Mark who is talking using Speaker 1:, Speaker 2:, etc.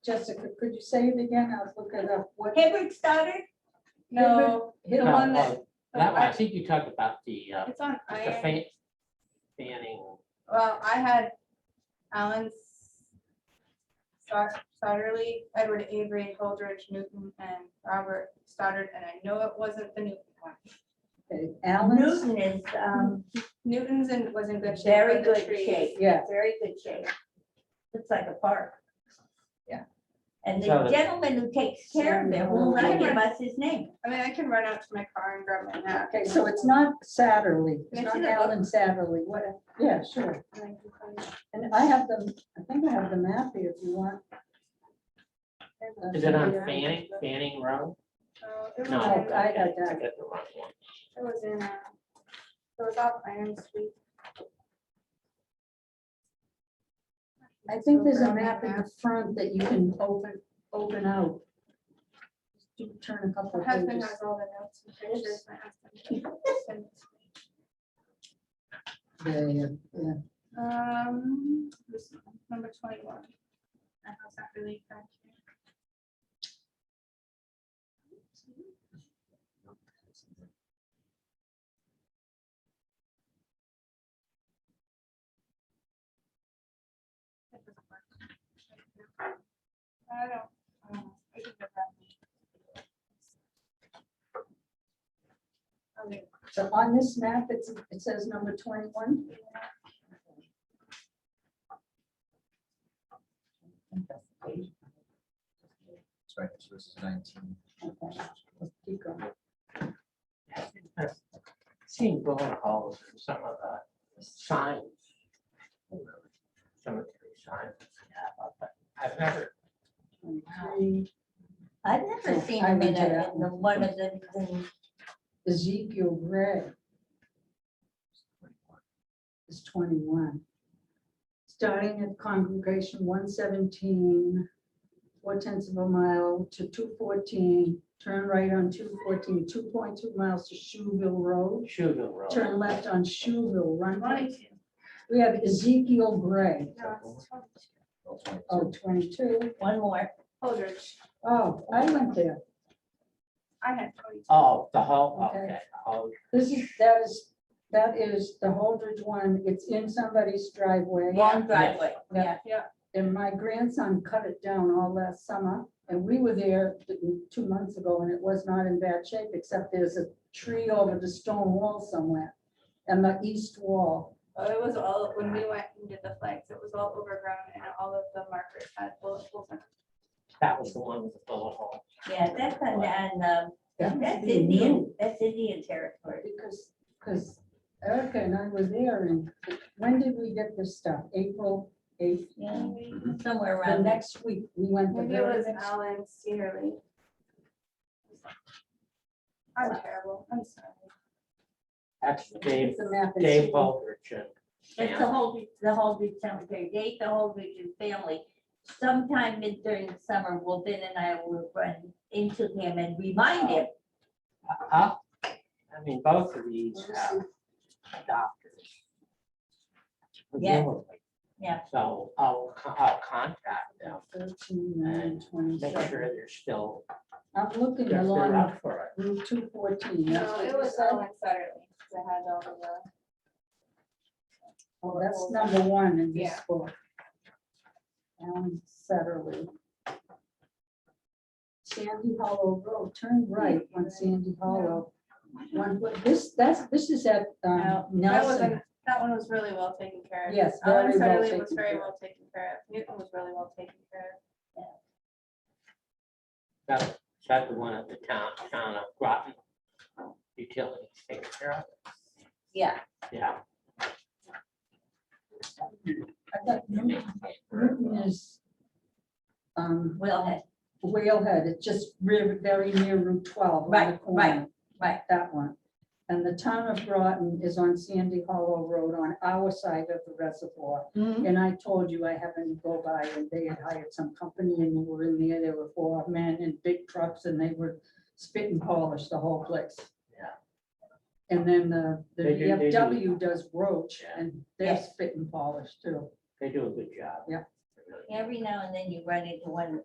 Speaker 1: Jessica, could you say it again? I was looking up what. Uh,
Speaker 2: Hibbert started,
Speaker 1: No, the
Speaker 3: No,
Speaker 1: one that.
Speaker 3: oh, That one, I think you talked about the, uh,
Speaker 2: it's on
Speaker 3: just the
Speaker 2: iron,
Speaker 3: fan, fanning,
Speaker 2: well, I had Alan Star- Starterly, Edward Avery, Holdridge, Newton, and Robert Stoddard, and I know it wasn't the Newton one.
Speaker 1: Okay, Alan's,
Speaker 4: Newton is, um,
Speaker 2: Newton's in, was in good shape.
Speaker 4: very
Speaker 2: with the
Speaker 4: good
Speaker 2: trees.
Speaker 4: shape,
Speaker 1: yeah,
Speaker 4: very good shape. Looks like a park.
Speaker 1: Yeah.
Speaker 4: And
Speaker 3: So
Speaker 4: the
Speaker 3: the-
Speaker 4: gentleman who takes care of it will not give us his name.
Speaker 2: I mean, I can run out to my car and grab my nap.
Speaker 1: okay, so it's not Satterly, it's
Speaker 2: Can I
Speaker 1: not
Speaker 2: see that
Speaker 1: Alan Satterly, what, yeah, sure. And I have them, I think I have the map here if you want.
Speaker 3: is it on Fanning, Fanning Road?
Speaker 2: Oh, it was
Speaker 3: No.
Speaker 2: in,
Speaker 1: I- I got
Speaker 3: okay,
Speaker 1: that.
Speaker 3: got the wrong one.
Speaker 2: it was in, uh, it was off Iron Street.
Speaker 1: I think there's a map in the front that you can open, open out. Do Turn a couple
Speaker 2: My
Speaker 1: of
Speaker 2: husband
Speaker 1: pages.
Speaker 2: has all the notes and pictures. and I asked him to send it to me.
Speaker 1: Yeah, yeah, yeah.
Speaker 2: Um, this one, number twenty-one. I know it's not really back here. That doesn't work. I don't. um, I think they're back. Okay,
Speaker 1: So on this map, it's, it says number twenty-one.
Speaker 5: Sorry, so this is nineteen.
Speaker 1: Okay, Keep going.
Speaker 3: Seeing bullet holes in some of the signs. Some of the signs. we have up there. I've never,
Speaker 1: 23.
Speaker 4: I've never
Speaker 1: Yeah,
Speaker 4: seen
Speaker 1: I
Speaker 4: him in
Speaker 1: went to
Speaker 4: a,
Speaker 1: that
Speaker 4: in the one of the, the-
Speaker 1: Ezekiel Gray is twenty-one. Starting at congregation one seventeen, four tenths of a mile to two fourteen, turn right on 214, 2.2 miles to Shoeville Road.
Speaker 3: Shuville Road.
Speaker 1: Turn left on Shoeville Run.
Speaker 2: Twenty-two.
Speaker 1: We have Ezekiel Gray,
Speaker 2: No, it's twenty-two.
Speaker 5: Oh, 22.
Speaker 1: oh, 22.
Speaker 4: one more.
Speaker 2: Holdridge.
Speaker 1: Oh, I went there.
Speaker 2: I had twenty-two.
Speaker 3: Oh, the whole,
Speaker 1: Okay.
Speaker 3: okay, oh,
Speaker 1: This is, that is, that is the Holdridge one. It's in somebody's driveway.
Speaker 4: Long driveway,
Speaker 1: Yeah.
Speaker 4: yeah.
Speaker 1: And my grandson cut it down all last summer, and we were there th- two months ago, and it was not in bad shape, except there's a tree over the stone wall somewhere. And the east wall,
Speaker 2: Oh, It was all, when we went and did the flags, it was all overgrown and all of the markers had bullet holes in them.
Speaker 3: that was the one with the bullet hole.
Speaker 4: Yeah, that's on, on, um,
Speaker 1: That must
Speaker 4: that's
Speaker 1: be new.
Speaker 4: Indian, that's Indian territory.
Speaker 1: because, because Erica and I were there, and when did we get this stuff? April eighth?
Speaker 4: Yeah, somewhere
Speaker 1: The
Speaker 4: around there.
Speaker 1: next week, we went the
Speaker 2: Maybe it
Speaker 1: very
Speaker 2: was
Speaker 1: next.
Speaker 2: Alan Searly. I'm terrible, I'm sorry.
Speaker 3: That's Dave,
Speaker 1: It's the map is-
Speaker 3: Dave Baldridge and.
Speaker 4: It's the whole, the whole big cemetery, they, ate the whole region family. Sometime mid during the summer, well, Ben and I will run into him and remind him.
Speaker 3: Uh-huh. I mean, both of these have doctors.
Speaker 4: Yeah.
Speaker 3: presumably.
Speaker 4: Yeah.
Speaker 3: So I'll, co- I'll contact them,
Speaker 1: Thirteen, nine,
Speaker 3: make
Speaker 1: twenty-seven.
Speaker 3: sure they're still,
Speaker 1: I'm
Speaker 3: if
Speaker 1: looking
Speaker 3: they're
Speaker 1: along
Speaker 3: up for it.
Speaker 1: Route two fourteen.
Speaker 2: No, it was Alan Searly that had all of the.
Speaker 1: Oh, that's number one in this
Speaker 2: Yeah.
Speaker 1: book. Um, Alan Satterlee. Sandy Hollow Road, turn right on Sandy Hollow. One, foot- this, that's, this is at um,
Speaker 2: That
Speaker 1: Nelson.
Speaker 2: wasn't, that one was really well taken care of.
Speaker 1: Yes, very
Speaker 2: Alan
Speaker 1: well
Speaker 2: Searly was
Speaker 1: taken
Speaker 2: very
Speaker 1: care
Speaker 2: well taken care of. Newton was really well taken care
Speaker 3: That's, that's the one at the town, town of Groton. Utilities take care of it.
Speaker 4: Yeah,
Speaker 3: Yeah.
Speaker 1: I thought Newton Newton is um,
Speaker 4: well, head,
Speaker 1: Whalehead, it's just re- very near Route twelve. on the
Speaker 4: Right, right,
Speaker 1: corner.
Speaker 4: right.
Speaker 1: That one. And the town of Groton is on Sandy Hollow Road on our side of the reservoir.
Speaker 2: of.
Speaker 1: And I told you I happened to go by and they had hired some company and we were in there, there were four men in big trucks and they were spit and polish the whole place.
Speaker 3: Yeah.
Speaker 1: And then the, the
Speaker 3: They do- they do.
Speaker 1: VFW does roach
Speaker 3: Yeah.
Speaker 1: and they're
Speaker 4: Yes.
Speaker 1: spit and polish too.
Speaker 3: They do a good job.
Speaker 1: Yeah.
Speaker 3: They really do.
Speaker 4: every now and then you run into one